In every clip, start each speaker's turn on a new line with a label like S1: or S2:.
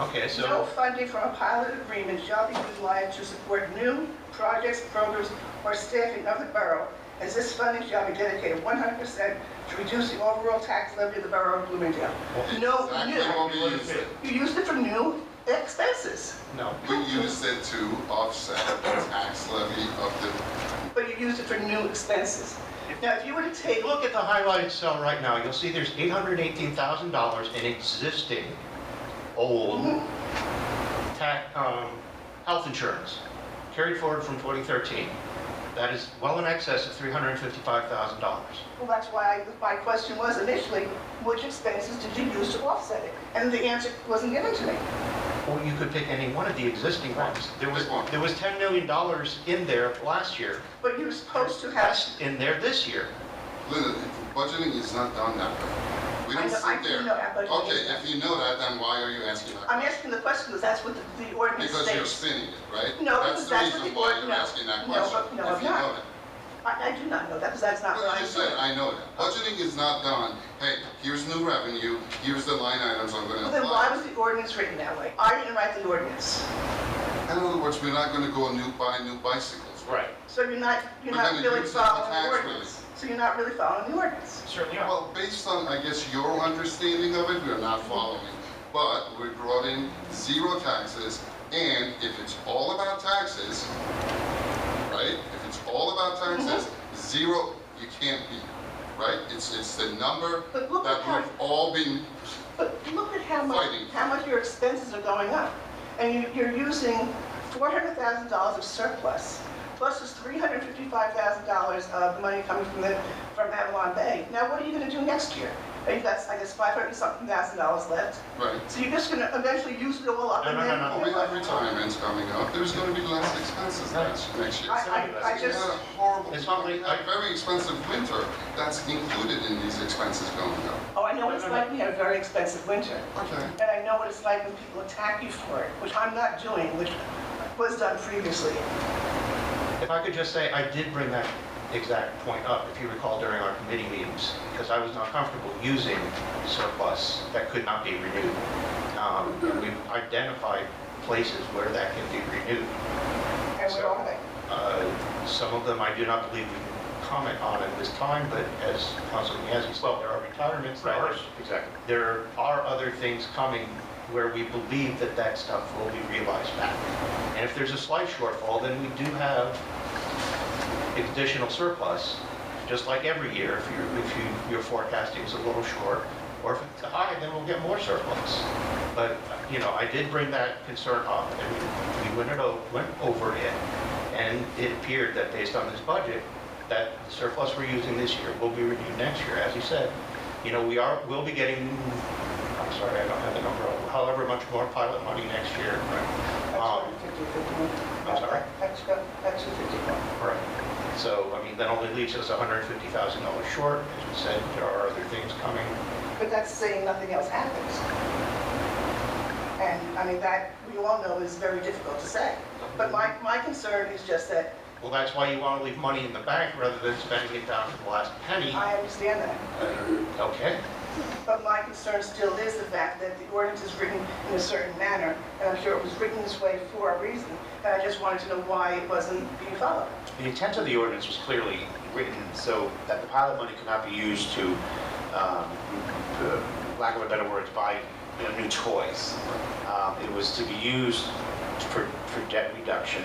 S1: Okay,
S2: No
S1: so,
S2: funding from pilot agreement shall be utilized to support new projects, programs, or staffing of the borough, as this funding shall be dedicated 100% to reduce the overall tax levy of the borough of Bloomingdale. No,
S3: Exactly
S2: new.
S3: what we used it,
S2: You used it for new expenses,
S1: no.
S3: we used it to offset the tax levy of the,
S2: but you used it for new expenses. Now, if you were to take,
S1: Hey, look at the highlighted cell right now, you'll see there's $818,000 in existing old
S2: Mm-hmm.
S1: tax, um, health insurance carried forward from 2013. That is well in excess of $355,000.
S2: Well, that's why I- my question was initially, which expenses did you use to offset it? And the answer wasn't given to me.
S1: Or you could pick any one of the existing ones. There was,
S3: Pick one.
S1: there was $10 million in there last year.
S2: But you're supposed to have,
S1: That's in there this year.
S3: Linda, budgeting is not done that way. We
S2: I
S3: don't
S2: know- I
S3: sit
S2: do
S3: there.
S2: know that, but-
S3: Okay, if you know that, then why are you asking that?
S2: I'm asking the question because that's what the- the ordinance
S3: Because you're
S2: states.
S3: spinning it, right?
S2: No, because
S3: That's the
S2: that's what
S3: reason
S2: the
S3: why
S2: board-
S3: you're
S2: no.
S3: asking that
S2: No,
S3: question,
S2: but-
S3: if you
S2: no,
S3: know
S2: I'm not.
S3: that.
S2: I, I do not know that because that's not
S3: But
S2: what
S3: I
S2: I
S3: just said,
S2: do.
S3: I know that. Budgeting is not done. Hey, here's new revenue, here's the line items I'm gonna
S2: Well, then why
S3: apply.
S2: was the ordinance written that way? I didn't write the ordinance.
S3: In other words, we're not gonna go new, buy new bicycles.
S1: Right.
S2: So you're not, you're
S3: But
S2: not
S3: then it
S2: really
S3: uses the
S2: following the
S3: tax
S2: ordinance. So you're not really following the ordinance.
S1: Certainly
S3: Well, based on, I guess, your understanding of it, we're not following. But we brought in zero taxes, and if it's all about taxes, right? If it's all about taxes,
S2: Mm-hmm.
S3: zero, you can't beat, right? It's, it's the number
S2: But look at
S3: that
S2: how,
S3: we've all been,
S2: but look at how much,
S3: Fighting.
S2: how much your expenses are going up. And you, you're using four hundred thousand dollars of surplus, plus this three hundred fifty-five thousand dollars of money coming from the, from Avalon Bay. Now, what are you gonna do next year? And you've got, I guess, five hundred something thousand dollars left.
S3: right?
S2: So you're just gonna eventually use it all up
S1: No,
S2: and
S1: no,
S2: then.
S1: no,
S3: Well, we have retirements coming up, there's gonna be less expenses next, next year.
S2: I, I, I
S3: We had a
S2: just,
S3: horrible,
S1: It's not
S3: we
S1: like-
S3: had a very expensive winter, that's included in these expenses going up.
S2: oh, I know what it's like, we had a very expensive winter.
S3: Okay.
S2: And I know what it's like when people attack you for it, which I'm not doing, which was done previously.
S1: If I could just say, I did bring that exact point up, if you recall during our committee meetings, because I was not comfortable using surplus that could not be renewed. Um, and We've identified places where that can be renewed.
S2: And we're all like,
S1: Uh, Some of them I do not believe we can comment on at this time, but as Councilman Yasi said, there are retirements. there are-
S4: exactly.
S1: There are other things coming where we believe that that stuff will be realized back. And if there's a slight shortfall, then we do have additional surplus, just like every year, if you're, if you, your forecasting is a little short, or if it's high, then we'll get more surplus. But, you know, I did bring that concern up, and we- we went it, o- went over it, and it appeared that based on this budget, that the surplus we're using this year will be renewed next year, as you said. You know, we are, we'll be getting, I'm sorry, I don't have the number, however much more pilot money next year. Um,
S2: that's 250, 51.
S1: I'm sorry?
S2: That's, go- that's 251.
S1: Right. So, I mean, that only leaves us $150,000 short. As we said, there are other things coming.
S2: But that's saying nothing else happens. And, I mean, that, we all know is very difficult to say. But my, my concern is just that,
S1: Well, that's why you want to leave money in the bank rather than spending it down to the last penny.
S2: I understand that.
S1: Okay?
S2: But my concern still is the fact that the ordinance is written in a certain manner, and I'm sure it was written this way for a reason, and I just wanted to know why it wasn't being followed.
S4: The intent of the ordinance was clearly written so that the pilot money could not be used to, um, uh, lack of a better word, buy you know, new toys. Um, It was to be used for for debt reduction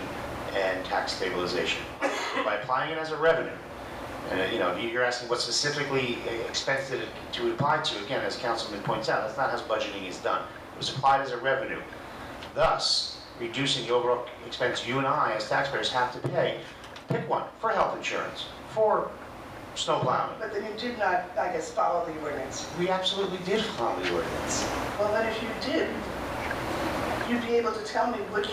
S4: and tax stabilization. By applying it as a revenue, and, uh, you know, you're asking what specifically expense did it to apply to, again, as Councilman points out, that's not how budgeting is done. It was applied as a revenue. thus reducing the overall expense you and I as taxpayers have to pay. Pick one, for health insurance, for snow plowing.
S2: But then you did not, I guess, follow the ordinance.
S4: We absolutely did follow the ordinance.
S2: Well, then if you did, you'd be able to tell me which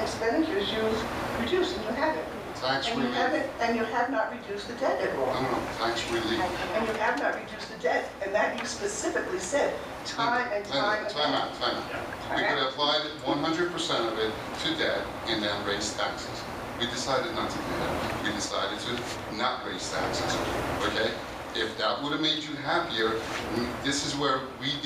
S2: expenditures you've reduced, and you haven't.
S3: Tax
S2: And you
S3: relief.
S2: haven't, and you have not reduced the debt at
S3: I
S2: all.
S3: don't know, tax relief.
S2: And you have not reduced the debt, and that you specifically said, time and time
S3: Time,
S2: and
S3: time out, time out. We could apply one hundred percent of it to debt and then raise taxes. We decided not to do that. We decided to not raise taxes, okay? If that would have made you happier, we- this is where we